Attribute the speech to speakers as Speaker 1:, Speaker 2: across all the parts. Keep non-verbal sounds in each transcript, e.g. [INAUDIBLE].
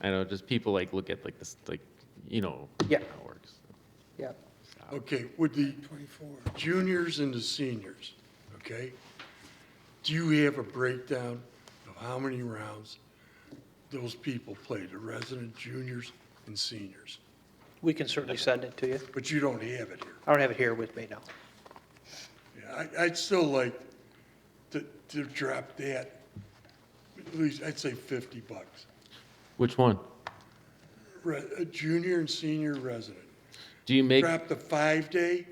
Speaker 1: I know, just people like look at like this, like, you know.
Speaker 2: Yeah.
Speaker 1: How it works.
Speaker 2: Yeah.
Speaker 3: Okay, with the juniors and the seniors, okay? Do you have a breakdown of how many rounds those people played, the resident juniors and seniors?
Speaker 2: We can certainly send it to you.
Speaker 3: But you don't have it here.
Speaker 2: I don't have it here with me now.
Speaker 3: Yeah, I, I'd still like to, to drop that, at least, I'd say fifty bucks.
Speaker 1: Which one?
Speaker 3: Re, a junior and senior resident.
Speaker 1: Do you make,
Speaker 3: Drop the five-day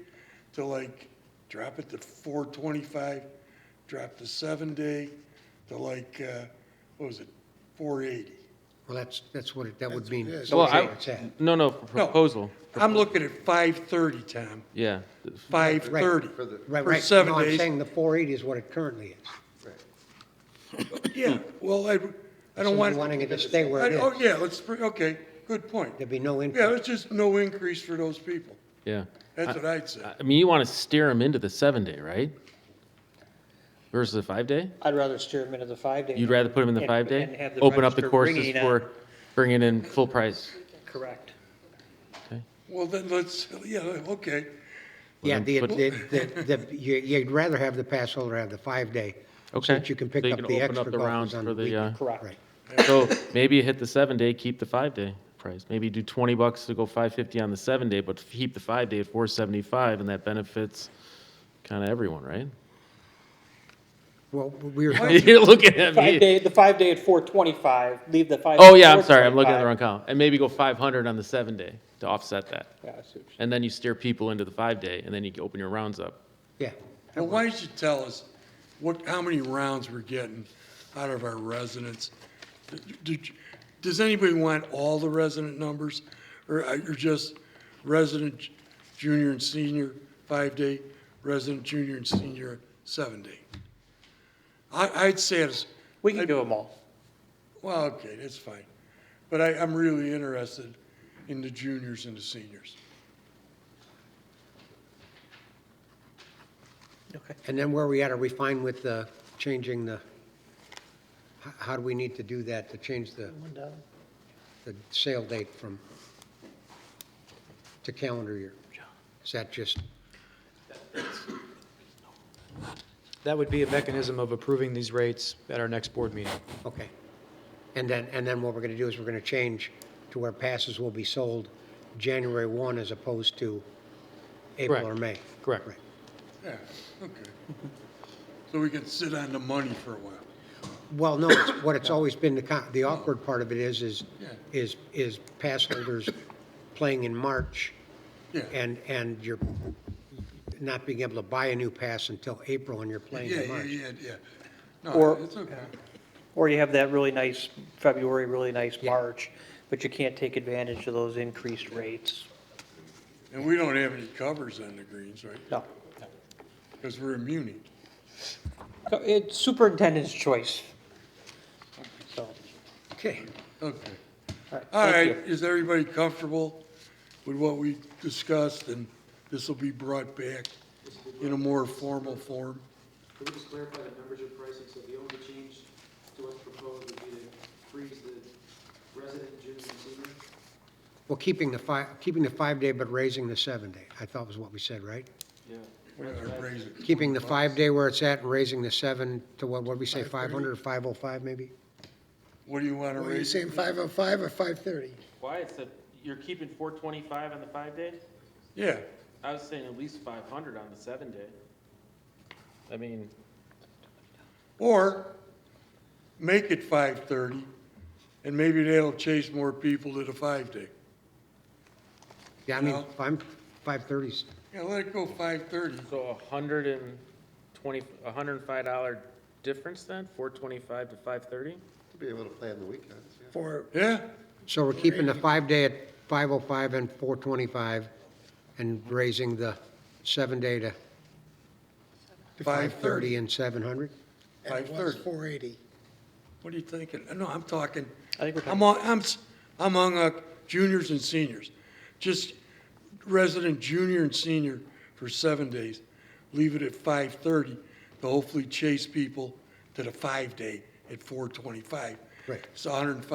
Speaker 3: to like, drop it to four twenty-five, drop the seven-day to like, uh, what was it, four eighty?
Speaker 4: Well, that's, that's what it, that would mean.
Speaker 1: well, I,
Speaker 4: Where it's at.
Speaker 1: no, no, for
Speaker 3: No,
Speaker 1: proposal,
Speaker 3: I'm looking at five-thirty, Tom,
Speaker 1: yeah.
Speaker 3: five-thirty.
Speaker 4: Right,
Speaker 3: For
Speaker 4: right.
Speaker 3: seven
Speaker 4: No, I'm
Speaker 3: days.
Speaker 4: saying the 480 is what it currently is.
Speaker 3: Yeah, well, I, I
Speaker 4: So
Speaker 3: don't
Speaker 4: you're
Speaker 3: want.
Speaker 4: Wanting it to stay where
Speaker 3: I-
Speaker 4: it
Speaker 3: Oh,
Speaker 4: is.
Speaker 3: yeah, let's, bring- okay, good point.
Speaker 4: There'd be no
Speaker 3: Yeah,
Speaker 4: increase.
Speaker 3: it's just no increase for those people.
Speaker 1: Yeah.
Speaker 3: That's what I'd say.
Speaker 1: I mean, you want to steer them into the seven day, right? Versus the five day?
Speaker 2: I'd rather steer them into the five-day.
Speaker 1: You'd rather put them in the
Speaker 2: And-
Speaker 1: five
Speaker 2: and
Speaker 1: day?
Speaker 2: have the
Speaker 1: Open up the
Speaker 2: registered
Speaker 1: courses
Speaker 2: ringing
Speaker 1: for
Speaker 2: on-
Speaker 1: bringing in full price.
Speaker 2: Correct.
Speaker 3: Well, then let's, yeah, okay.
Speaker 4: Yeah, the, the, the, the- you- you'd rather have the pass holder have the five-day.
Speaker 1: Okay.
Speaker 4: So that you can pick
Speaker 1: So you
Speaker 4: up
Speaker 1: can
Speaker 4: the
Speaker 1: open
Speaker 4: extra
Speaker 1: up the rounds
Speaker 4: golfers on
Speaker 1: for the,
Speaker 4: the weekend.
Speaker 1: uh,
Speaker 2: Correct.
Speaker 4: Right.
Speaker 1: So maybe you hit the seven day, keep the five day price. Maybe do twenty bucks to go five fifty on the seven day, but keep the five day at four seventy five, and that benefits kind of everyone, right?
Speaker 4: Well, we
Speaker 1: [LAUGHS]
Speaker 4: were,
Speaker 1: You're looking at me.
Speaker 2: Five-day, the five-day at four twenty-five, leave the five.
Speaker 1: Oh yeah, I'm sorry, I'm looking at the wrong column. And maybe go five hundred on the seven day to offset that, and then you steer people into the five day, and then you open your rounds up.
Speaker 4: yeah.
Speaker 3: Well, why don't you tell us what, how many rounds we're getting out of our residents? Did- Does anybody want all the resident numbers? Or are you just resident junior and senior, five-day, resident junior and senior, seven-day? I, I'd say it's,
Speaker 2: We can do them all.
Speaker 3: well, okay, that's fine. But I, I'm really interested in the juniors and the seniors.
Speaker 2: Okay.
Speaker 4: And then where are we at? Are we fine with uh, changing the, h- how do we need to do that to change the, the sale date from, to calendar year? Is that just,
Speaker 5: That would be a mechanism of approving these rates at our next board meeting.
Speaker 4: okay. And then, and then what we're going to do is we're going to change to where passes will be sold January 1 as opposed to April or
Speaker 5: Correct.
Speaker 4: May.
Speaker 5: Correct.
Speaker 4: Right.
Speaker 3: Yeah, okay. So we can sit on the money for a while.
Speaker 4: Well, no, it's what it's always been, the con- the awkward part of it is, is,
Speaker 3: Yeah.
Speaker 4: is, is pass holders playing in March
Speaker 3: Yeah.
Speaker 4: and, and you're not being able to buy a new pass until April and you're playing
Speaker 3: Yeah,
Speaker 4: in
Speaker 3: yeah,
Speaker 4: March.
Speaker 3: yeah, yeah. No,
Speaker 2: Or-
Speaker 3: it's okay.
Speaker 2: Or you have that really nice February, really nice
Speaker 4: Yeah.
Speaker 2: March, but you can't take advantage of those increased rates.
Speaker 3: And we don't have any covers on the greens, right?
Speaker 2: No.
Speaker 3: Because we're immune.
Speaker 2: So It's superintendent's choice. So, all
Speaker 4: Okay.
Speaker 3: Okay.
Speaker 2: right.
Speaker 3: All
Speaker 2: thank
Speaker 3: right,
Speaker 2: you.
Speaker 3: is everybody comfortable with what we discussed? And this will be brought back in a more formal form?
Speaker 6: Can we just clarify the membership pricing, so the only change to what's proposed would be to freeze the resident junior and senior?
Speaker 4: Well, keeping the five, keeping the five-day but raising the seven-day, I thought was what we said, right?
Speaker 3: Or raise it?
Speaker 4: Keeping the five-day where it's at and raising the seven to what, what'd we say, 500 or 505 maybe?
Speaker 3: What do you want to
Speaker 7: Are you
Speaker 3: raise?
Speaker 7: saying 505 or 530?
Speaker 1: Why? It's a, you're keeping four twenty five on the five day?
Speaker 3: Yeah,
Speaker 1: I was saying at least five hundred on the seven day. I mean.
Speaker 3: or make it 5:30, and maybe that'll chase more people to the five-day.
Speaker 4: Yeah, I mean,
Speaker 3: No.
Speaker 4: I'm, 530s,
Speaker 3: Yeah, let it go 5:30.
Speaker 1: So a hundred and twenty, a hundred and five dollar difference then, four twenty-five to five thirty?
Speaker 8: Be able to play on the weekends, yeah.
Speaker 7: For,
Speaker 3: Yeah?
Speaker 4: So we're keeping the five-day at 505 and 425, and raising the seven-day to 530 and 700?
Speaker 7: and it was
Speaker 3: 5:30.
Speaker 7: 480.
Speaker 3: What are you thinking? No, I'm talking,
Speaker 2: I think we're talking-
Speaker 3: I'm, on- I'm, s- I'm on uh, juniors and seniors. Just resident junior and senior for seven days. Leave it at five thirty to hopefully chase people to the five day at four twenty-five.
Speaker 4: Right.
Speaker 3: It's hundred and five